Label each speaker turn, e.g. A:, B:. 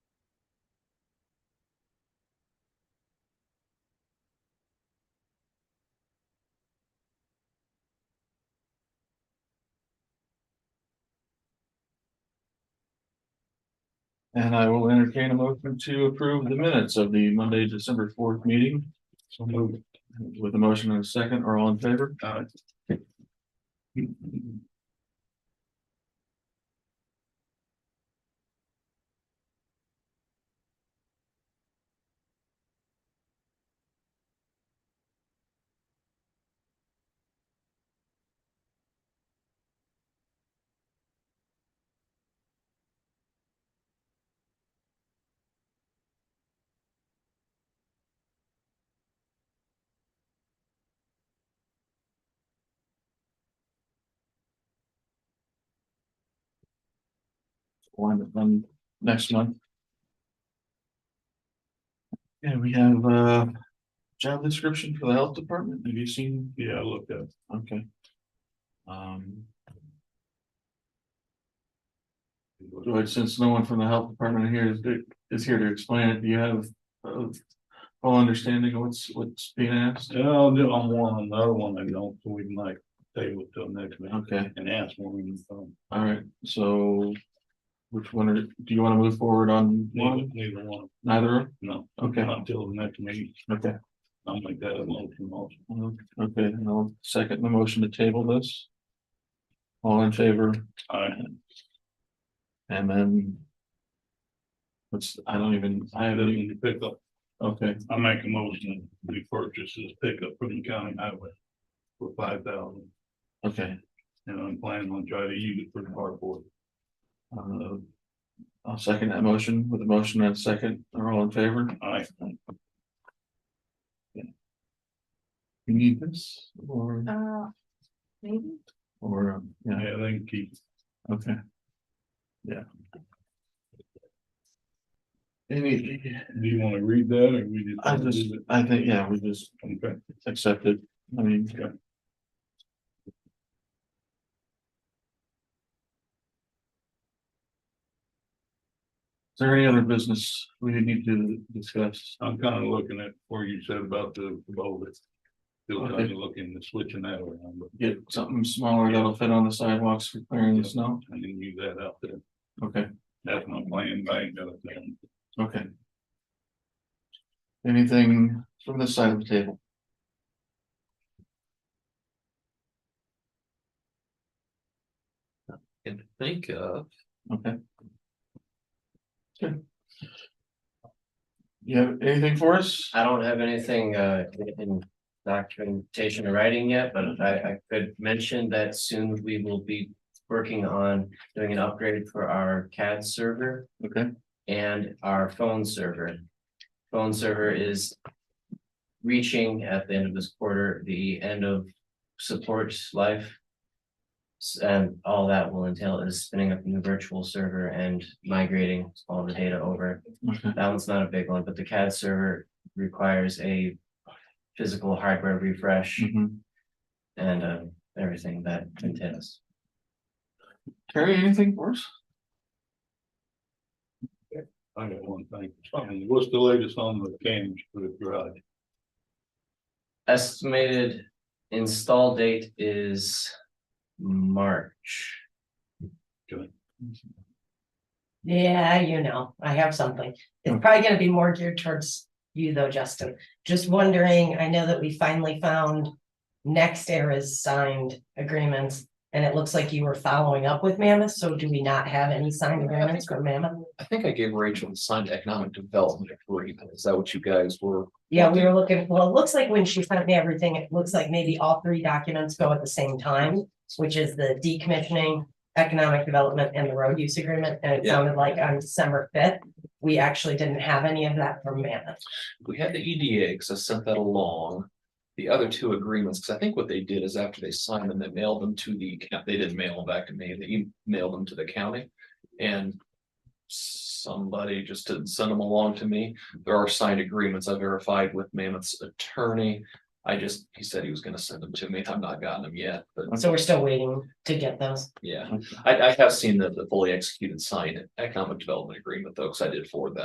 A: And I will entertain a motion to approve the minutes of the Monday, December fourth meeting. So moved. With a motion and a second, are all in favor? One, um, next month. And we have uh job description for the health department. Have you seen?
B: Yeah, I looked at.
A: Okay. Um,
B: it.
A: George, since no one from the health department here is is here to explain it, do you have a full understanding of what's what's being asked?
B: Yeah, I'll do on one, on the other one, I don't, so we might table it till next meeting
A: Okay.
B: and ask one of them.
A: All right, so which one are, do you want to move forward on
B: Neither
A: one,
B: neither one,
A: neither?
B: no,
A: Okay,
B: not till the next meeting,
A: okay,
B: I'll make that a motion also.
A: Mm-hmm. okay, and I'll second the motion to table this. All in favor,
B: Alright,
A: and then. What's, I don't even, I
B: I
A: haven't,
B: need to pick up,
A: okay,
B: I make a motion, we purchase this pickup from the county highway. For five thousand,
A: okay,
B: and I'm planning on trying to use it for the hardboard.
A: uh. I'll second that motion with a motion and a second, are all in favor?
B: Alright,
A: You need this or,
C: Uh, maybe,
A: or, um,
B: yeah,
A: yeah,
B: they can keep,
A: okay. Yeah. Any,
B: do you wanna read that, or we just?
A: I just, I think, yeah, we just
B: Okay,
A: accept it, I mean.
B: Okay.
A: Is there any other business we need to discuss?
B: I'm kinda looking at where you said about the bowl. Still
A: Okay.
B: kinda looking to switching that around, but
A: Get something smaller that'll fit on the sidewalks for clearing the snow?
B: I didn't use that out there,
A: Okay,
B: that's my plan, I ain't got a thing.
A: okay. Anything from this side of the table?
D: can think of.
A: Okay. Good. You have anything for us?
D: I don't have anything uh in- in documentation or writing yet, but I I could mention that soon we will be working on doing an upgrade for our CAD server
A: Okay,
D: and our phone server. Phone server is reaching at the end of this quarter, the end of support life. S- And all that will entail is spinning up a new virtual server and migrating all the data over.
A: okay,
D: That one's not a big one, but the CAD server requires a physical hardware refresh
A: mhm.
D: and um everything that entails.
A: Terry, anything for us?
B: I got one thing, Um, what's the latest on the cams for the garage?
D: Estimated install date is March.
E: Yeah, you know, I have something. It's probably gonna be more geared towards you though, Justin. Just wondering, I know that we finally found. Next era's signed agreements and it looks like you were following up with Mammoth, so do we not have any signed agreements from Mammoth?
F: I think I gave Rachel the signed economic development agreement. Is that what you guys were?
E: Yeah, we were looking, well, it looks like when she sent me everything, it looks like maybe all three documents go at the same time. Which is the decommissioning, economic development and the road use agreement, and it
F: Yeah.
E: sounded like on December fifth. We actually didn't have any of that from Mammoth.
F: We had the E EDA, because I sent that along. The other two agreements, because I think what they did is after they signed them, they mailed them to the, coun- they didn't mail them back to me, they emailed them to the county. And somebody just didn't send them along to me. There are signed agreements I verified with Mammoth's attorney. I just, he said he was gonna send them to me. I've not gotten them yet, but
E: So we're still waiting to get those.
F: yeah. I, I have seen the, the fully executed signed economic development agreement though, because I did forward that